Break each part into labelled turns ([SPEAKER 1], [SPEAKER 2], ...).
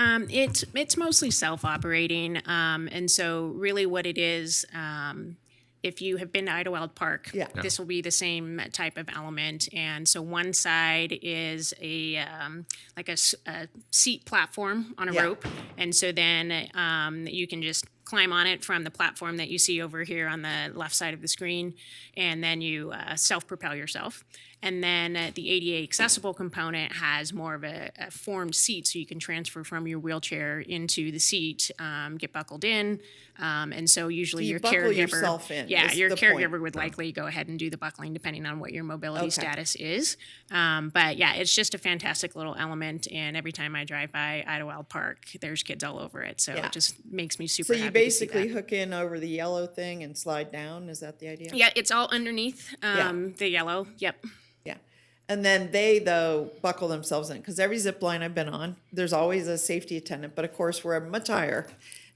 [SPEAKER 1] Um, it's it's mostly self-operating, um, and so really what it is, um, if you have been to Idlewild Park,
[SPEAKER 2] Yeah.
[SPEAKER 1] this will be the same type of element. And so one side is a um, like a, s- a seat platform on a
[SPEAKER 2] Yeah.
[SPEAKER 1] rope, and so then um, you can just climb on it from the platform that you see over here on the left side of the screen, and then you uh, self-propel yourself. And then uh, the ADA accessible component has more of a, a formed seat, so you can transfer from your wheelchair into the seat, um, get buckled in, um, and so usually
[SPEAKER 2] You
[SPEAKER 1] your
[SPEAKER 2] buckle
[SPEAKER 1] caregiver,
[SPEAKER 2] yourself in
[SPEAKER 1] yeah,
[SPEAKER 2] is
[SPEAKER 1] your
[SPEAKER 2] the point.
[SPEAKER 1] caregiver would likely go ahead and do the buckling depending on what your mobility
[SPEAKER 2] Okay.
[SPEAKER 1] status is. Um, but yeah, it's just a fantastic little element, and every time I drive by Idlewild Park, there's kids all over it, so
[SPEAKER 2] Yeah.
[SPEAKER 1] it just makes me super.
[SPEAKER 2] So you
[SPEAKER 1] happy to see that.
[SPEAKER 2] basically hook in over the yellow thing and slide down, is that the idea?
[SPEAKER 1] Yeah, it's all underneath um, the yellow. Yep.
[SPEAKER 2] Yeah. And then they though buckle themselves in because every zip line I've been on, there's always a safety attendant, but of course we're much higher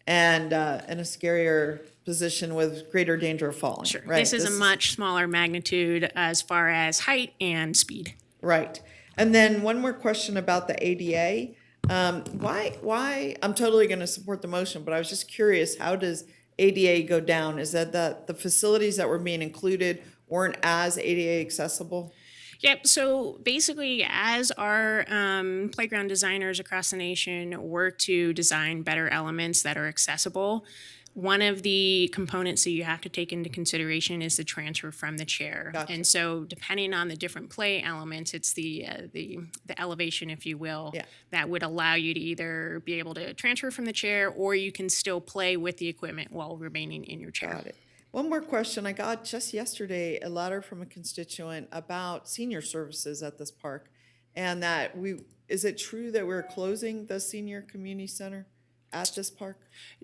[SPEAKER 2] and uh, in a scarier position with greater danger of falling. Sure. Right.
[SPEAKER 1] This is a much smaller magnitude as far as height and speed.
[SPEAKER 2] Right. And then one more question about the ADA. Um, why, why, I'm totally going to support the motion, but I was just curious, how does ADA go down? Is that the, the facilities that were being included weren't as ADA accessible?
[SPEAKER 1] Yep. So basically, as our um, playground designers across the nation work to design better elements that are accessible, one of the components that you have to take into consideration is the transfer from the chair. And so, depending on the different play elements, it's the uh, the the elevation, if you will,
[SPEAKER 2] Yeah.
[SPEAKER 1] that would allow you to either be able to transfer from the chair, or you can still play with the equipment while remaining in your chair.
[SPEAKER 2] Got it. One more question. I got just yesterday a letter from a constituent about senior services at this park. And that we, is it true that we're closing the senior community center at this park?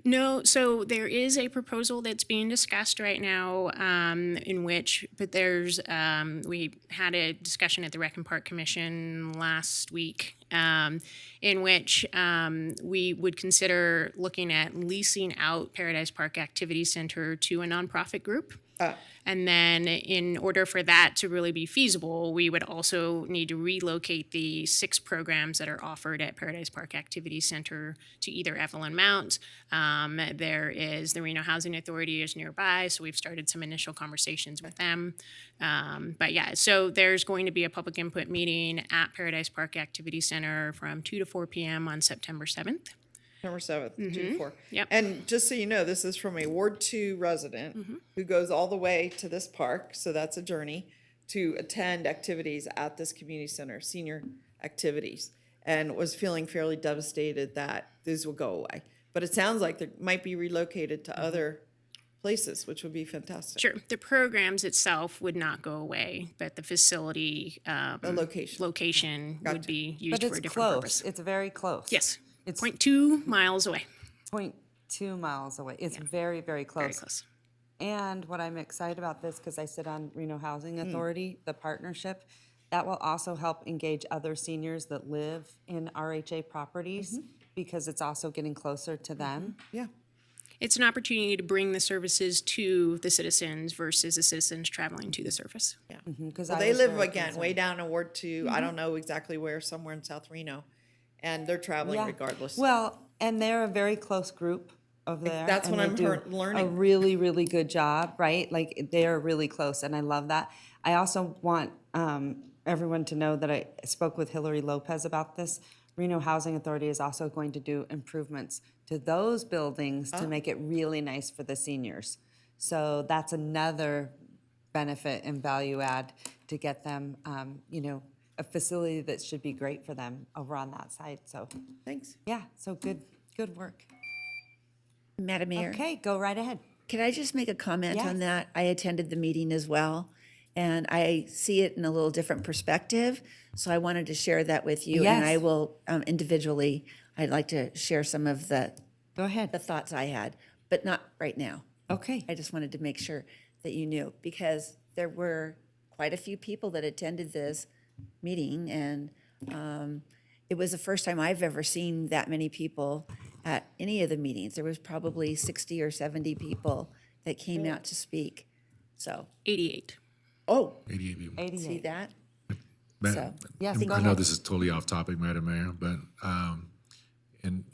[SPEAKER 1] No, so there is a proposal that's being discussed right now um, in which, but there's, um, we had a discussion at the Rec and Park Commission last week um, in which um, we would consider looking at leasing out Paradise Park Activity Center to a nonprofit group. And then, in order for that to really be feasible, we would also need to relocate the six programs that are offered at Paradise Park Activity Center to either Evelyn Mount. Um, there is the Reno Housing Authority is nearby, so we've started some initial conversations with them. Um, but yeah, so there's going to be a public input meeting at Paradise Park Activity Center from 2 to 4 p.m. on September 7th.
[SPEAKER 2] Number seventh, two four.
[SPEAKER 1] Mm-hmm. Yep.
[SPEAKER 2] And just so you know, this is from a Ward Two
[SPEAKER 1] Mm-hmm.
[SPEAKER 2] resident who goes all the way to this park, so that's a journey, to attend activities at this community center, senior activities, and was feeling fairly devastated that these will go away. But it sounds like they might be relocated to other places, which would be fantastic.
[SPEAKER 1] Mm-hmm. Sure, the programs itself would not go away, but the facility um,
[SPEAKER 2] The location.
[SPEAKER 1] location would be used
[SPEAKER 3] But
[SPEAKER 1] for
[SPEAKER 3] it's
[SPEAKER 1] a different
[SPEAKER 3] close.
[SPEAKER 1] purpose.
[SPEAKER 3] It's very close.
[SPEAKER 1] Yes,
[SPEAKER 3] It's
[SPEAKER 1] point two miles away.
[SPEAKER 3] point two miles away. It's very, very close.
[SPEAKER 1] Very close.
[SPEAKER 3] And what I'm excited about this because I sit on Reno
[SPEAKER 1] Hmm.
[SPEAKER 3] Housing Authority, the partnership that will also help engage other seniors that live in RHA properties
[SPEAKER 1] Mm-hmm.
[SPEAKER 3] because it's also getting closer to them.
[SPEAKER 2] Yeah.
[SPEAKER 1] It's an opportunity to bring the services to the citizens versus the citizens traveling to the surface.
[SPEAKER 3] Because
[SPEAKER 2] Well, they live again way down in Ward Two.
[SPEAKER 1] Mm-hmm.
[SPEAKER 2] I don't know exactly where, somewhere in South Reno, and they're traveling regardless.
[SPEAKER 3] Well, and they're a very close group over there.
[SPEAKER 2] that's
[SPEAKER 3] and
[SPEAKER 2] what
[SPEAKER 3] they
[SPEAKER 2] I'm
[SPEAKER 3] do
[SPEAKER 2] hear-
[SPEAKER 3] A
[SPEAKER 2] learning.
[SPEAKER 3] really, really good job, right? Like they're really close, and I love that. I also want um, everyone to know that I spoke with Hillary Lopez about this. Reno Housing Authority is also going to do improvements to those buildings
[SPEAKER 2] Oh.
[SPEAKER 3] to make it really nice for the seniors. So that's another benefit and value add to get them, um, you know, a facility that should be great for them over on that side. So
[SPEAKER 2] Thanks.
[SPEAKER 3] yeah, so good, good work.
[SPEAKER 4] Madam Mayor,
[SPEAKER 3] Okay, go right ahead.
[SPEAKER 4] can I just make a comment
[SPEAKER 3] Yes.
[SPEAKER 4] on that? I attended the meeting as well, and I see it in a little different perspective. So I wanted to share that with you, and I
[SPEAKER 3] Yes.
[SPEAKER 4] will um, individually, I'd like to share some of the,
[SPEAKER 3] Go
[SPEAKER 4] the
[SPEAKER 3] ahead.
[SPEAKER 4] thoughts I had, but not right now.
[SPEAKER 3] Okay.
[SPEAKER 4] I just wanted to make sure that you knew, because there were quite a few people that attended this meeting, and um, it was the first time I've ever seen that many people at any of the meetings. There was probably 60 or 70 people that came out to speak. So,
[SPEAKER 1] 88.
[SPEAKER 4] oh,
[SPEAKER 5] 88 people.
[SPEAKER 4] see that?
[SPEAKER 5] Ma-
[SPEAKER 4] So,
[SPEAKER 3] Yes,
[SPEAKER 5] and
[SPEAKER 3] go
[SPEAKER 5] I know
[SPEAKER 3] ahead.
[SPEAKER 5] this is totally off topic, Madam Mayor, but um, in